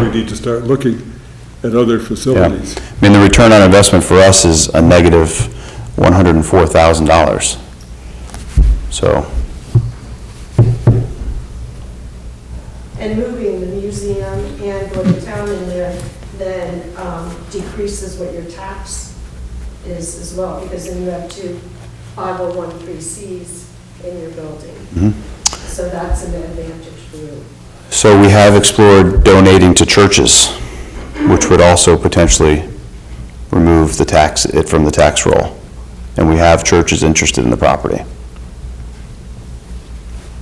we need to start looking at other facilities. I mean, the return on investment for us is a negative $104,000. So, And moving the museum and going to town in there then um, decreases what your tax is as well, because then you have two 5013Cs in your building. So that's an advantage for you. so we have explored donating to churches, which would also potentially remove the tax, it from the tax roll. And we have churches interested in the property.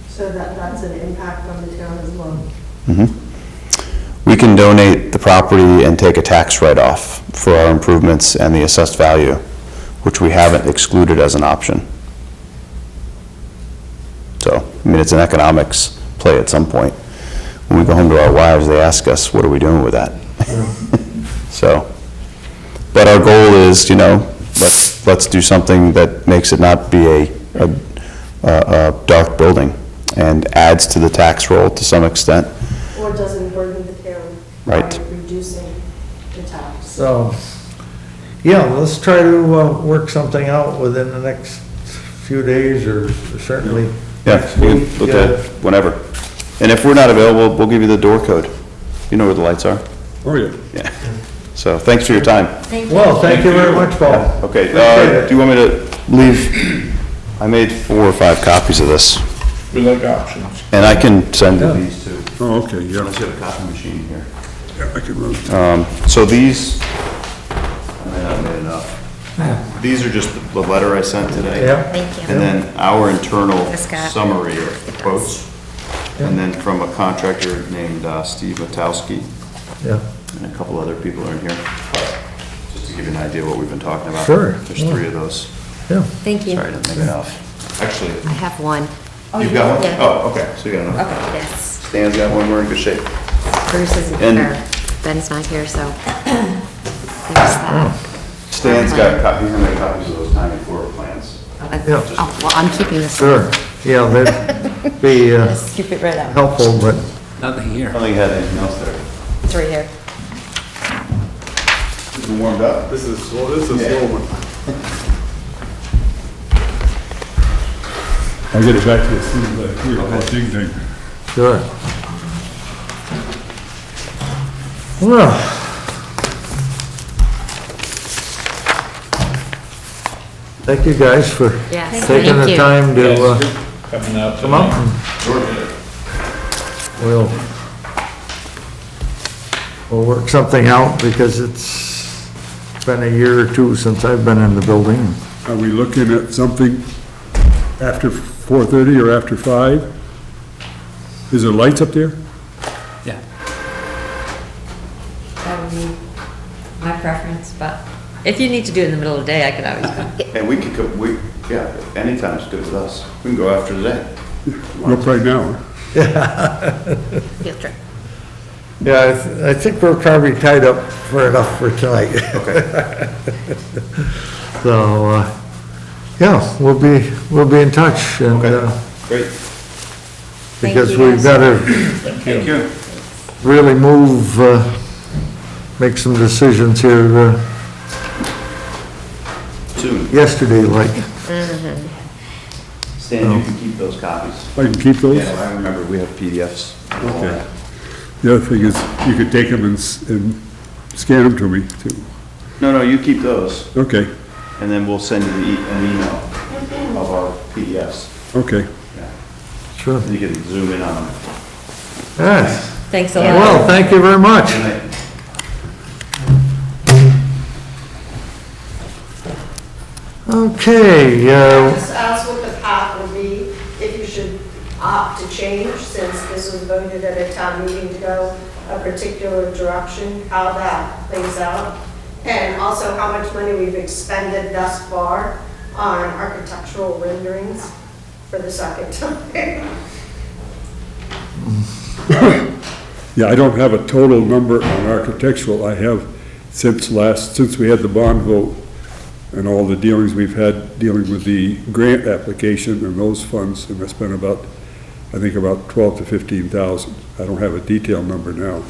So that, that's an impact on the town as well. We can donate the property and take a tax write-off for our improvements and the assessed value, which we haven't excluded as an option. So, I mean, it's an economics play at some point. When we go home to our wives, they ask us, what are we doing with that? So, but our goal is, you know, let's do something that makes it not be a, a, a a dark building and adds to the tax roll to some extent. Or doesn't burden the town. Right. By reducing the tax. So, yeah, let's try to uh, work something out within the next few days or certainly Yeah, next we week. can look uh, at whenever. And if we're not available, we'll give you the door code. You know where the lights are. Oh, yeah. Yeah. So thanks for your time. Well, thank you very much, Paul. Okay, Appreciate uh, it. do you want me to leave? I made four or five copies of this, We like options. and I can send these to, Oh, okay, yeah, unless you have a copy machine here. Yeah, I can run. So these, I may not have made enough. These are just the letter I sent today. Yeah. Thank And you. then our internal This guy. summary of quotes. And then from a contractor named uh, Steve Matowski, Yeah. and a couple other people are in here. Just to give you an idea of what we've been talking about. Sure, There's yeah. three of those. Thank you. Sorry, I didn't make enough. Actually, I have one. you've got one? Yeah. Oh, okay, so you got enough. Okay, yes. Stan's got one, we're in good shape. Bruce isn't And- here. Ben's not here, so there's that. Oh. Stan's got copies, how many copies of those tiny floor plans? Uh, Yeah. Oh, well, I'm keeping this. Sure, yeah, that'd be uh, Keep it right out. helpful, but Nothing I here. don't think you had anything else there. It's right here. You warmed up? This is, slow. this is slow one. I'll get it back to you as soon as I hear that ding ding. sure. Well. Thank you guys for Yes, taking thank the you. time to uh, Coming out come out tonight. and We'll, we'll work something out because it's been a year or two since I've been in the building. Are we looking at something after 4:30 or after 5? Is there lights up there? Yeah. That would be my preference, but if you need to do it in the middle of the day, I could always come. And we could, co- we, yeah, anytime's good with us. We can go after today. Up right now. Field trip. Yeah, I th- I think we're probably tied up for enough for tonight. So, uh, yeah, we'll be, we'll be in touch and, uh, Great. because you, we've got guys. to Thank you. really move, uh, make some decisions here uh, Soon. yesterday, like. Oh. Stan, you can keep those copies. I can keep those? Yeah, I remember, we have PDFs. Okay. The other thing is, you could take them and s- and scan them to me, too. No, no, you keep those, Okay, and then we'll send you the e- an email of our PDFs. okay. Sure. You can zoom in on them. Yes. Thanks a lot. Well, thank you very much. Good night. Okay, uh, Just ask what the path would be, if you should opt to change, since this was voted at a town meeting to go a particular direction, how that plays out, and also how much money we've expended thus far on architectural renderings for the second time. Yeah, I don't have a total number on architectural. I have since last, since we had the bond vote and all the dealings we've had dealing with the grant application and those funds, and I spent about, I think about twelve to fifteen thousand. I don't have a detailed number now.